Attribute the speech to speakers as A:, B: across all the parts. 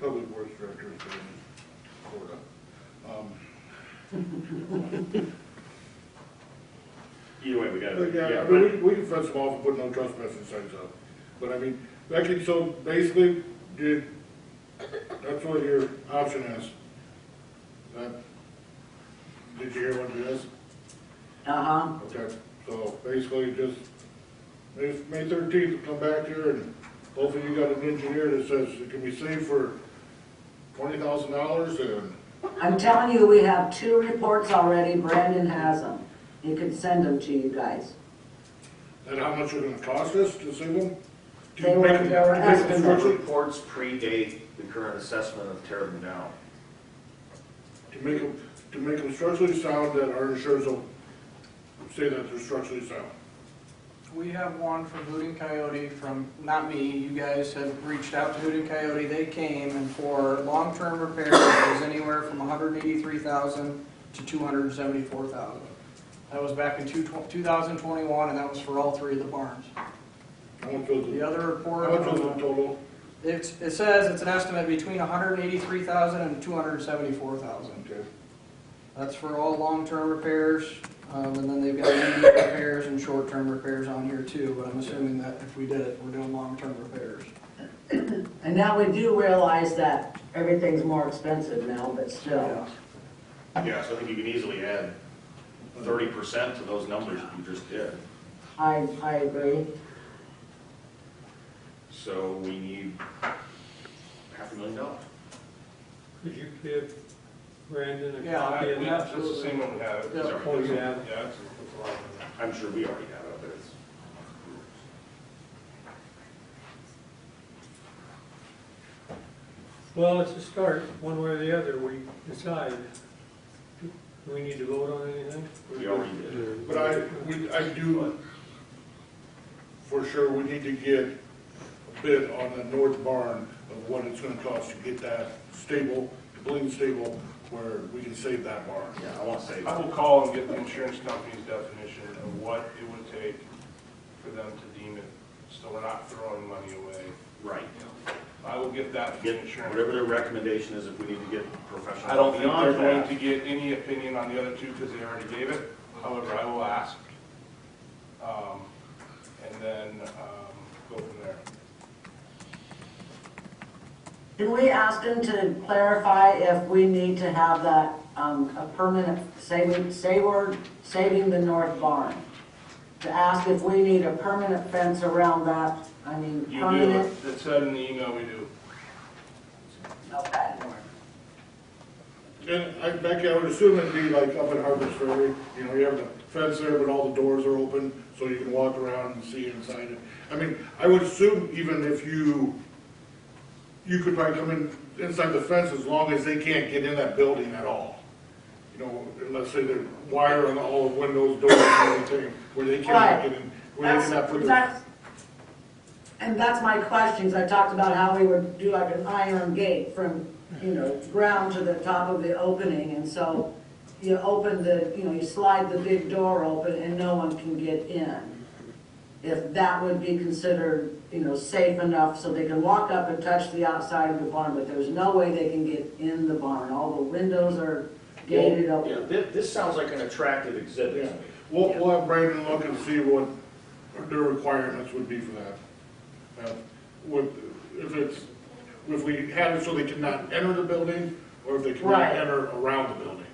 A: public works director is in Florida. Um,
B: Either way, we gotta,
A: But
B: yeah,
A: Uh, yeah, I mean, we,
B: right.
A: we can fence them off and put no trespassing signs up, but I mean, actually, so basically, did, that's what your option is. That, did you hear what it is?
C: Uh-huh,
A: Okay, so basically just, May, May thirteenth, come back here and hopefully you got an engineer that says it can be saved for twenty thousand dollars and,
C: I'm telling you, we have two reports already, Brandon has them. He can send them to you guys.
A: and how much it's gonna cost us to save them? Do you
C: They were-
A: make them-
C: they were
A: make
C: asking
A: them
B: The
A: virtually-
B: reports predate the current assessment of tear them down.
A: To make them, to make them structurally sound that our insurers will say that they're structurally sound.
D: We have one from Hooting Coyote from, not me, you guys have reached out to Hooting Coyote, they came and for long-term repairs, it was anywhere from hundred and eighty-three thousand to two hundred and seventy-four thousand. That was back in two, two thousand twenty-one, and that was for all three of the barns.
A: How much was
D: The
A: it?
D: other report,
A: How much was the total?
D: it's, it says it's an estimate between $183,000 and $274,000.
A: Okay.
D: That's for all long-term repairs, um, and then they've got immediate repairs and short-term repairs on here too, but I'm assuming that if we did it, we're doing long-term repairs.
C: And now we do realize that everything's more expensive now, but still.
B: Yeah, so I think you can easily add thirty percent to those numbers you just did.
C: I, I agree.
B: So we need half a million dollars.
E: Could you give Brandon a
D: Yeah,
E: copy of
D: we
E: that?
D: have- That's the same
F: one we have.
D: Yeah.
E: Oh, you have it?
F: Yeah.
B: I'm sure we already have it, but it's.
E: Well, it's a start, one way or the other, we decide. Do we need to vote on anything?
B: We already did.
A: But I, we, I do, for sure, we need to get a bid on the north barn of what it's gonna cost to get that stable, completely stable, where we can save that barn.
B: Yeah, I want to say,
F: I will call and get the insurance company's definition of what it would take for them to deem it, so we're not throwing money away.
B: right.
F: I will get that from
B: Get,
F: the insurance.
B: whatever their recommendation is, if we need to get professional.
F: I don't think they're
B: beyond
F: going to
B: that.
F: get any opinion on the other two because they already gave it. However, I will ask. Um, And then um, go from there.
C: Can we ask him to clarify if we need to have that, um, a permanent, say, we, say we're saving the north barn? To ask if we need a permanent fence around that, I mean,
F: You
C: permanent?
F: do, it said in the email we do.
C: Okay.
A: And I, Becky, I would assume it'd be like up in Harvest Ferry, you know, you have the fence there, but all the doors are open, so you can walk around and see inside it. I mean, I would assume even if you, you could probably come in, inside the fence as long as they can't get in that building at all. You know, let's say they're wiring all the windows, doors, and everything, where they cannot
C: Right.
A: get in, where they
C: That's,
A: cannot put their.
C: that's, and that's my questions, I talked about how we would do like an iron gate from, you know, ground to the top of the opening, and so you open the, you know, you slide the big door open and no one can get in. If that would be considered, you know, safe enough so they can walk up and touch the outside of the barn, but there's no way they can get in the barn, all the windows are gated
B: Yeah, thi-
C: open.
B: this, sounds like an attractive exhibit
A: Yeah,
B: to me.
A: we'll, we'll have Brandon look and see what their requirements would be for that. Uh, Would, if it's, if we had it so they cannot enter the building, or if they cannot
C: Right.
A: enter around the building.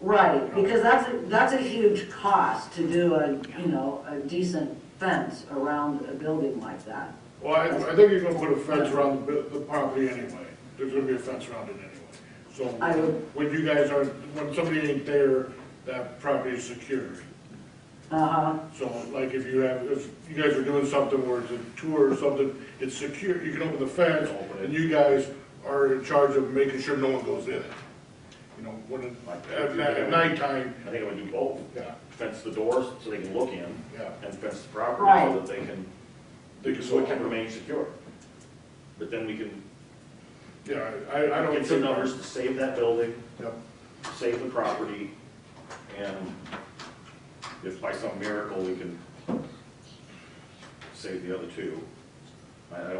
C: Right, because that's, a- that's a huge cost to do a, you know, a decent fence around a building like that.
A: Well, I, I think you're gonna put a fence around the, bu- the property anyway, there's gonna be a fence around it anyway. So,
C: I would-
A: when you guys are, when somebody ain't there, that property is secured.
C: Uh-huh,
A: So like if you have, if you guys are doing something where it's a tour or something, it's secure, you can open the fence and you guys are in charge of making sure no one goes in it. You know, when, it- at, ni- at nighttime,
B: I think I would do both.
A: yeah,
B: Fence the doors so they can look in
A: Yeah.
B: and fence the property so
C: Right.
B: that they can,
A: They can
B: so it can
A: walk.
B: remain secure. But then we can
A: yeah, I, I don't.
B: get some
A: think-
B: numbers to save that building,
A: Yeah.
B: save the property, and if by some miracle we can save the other two, I I don't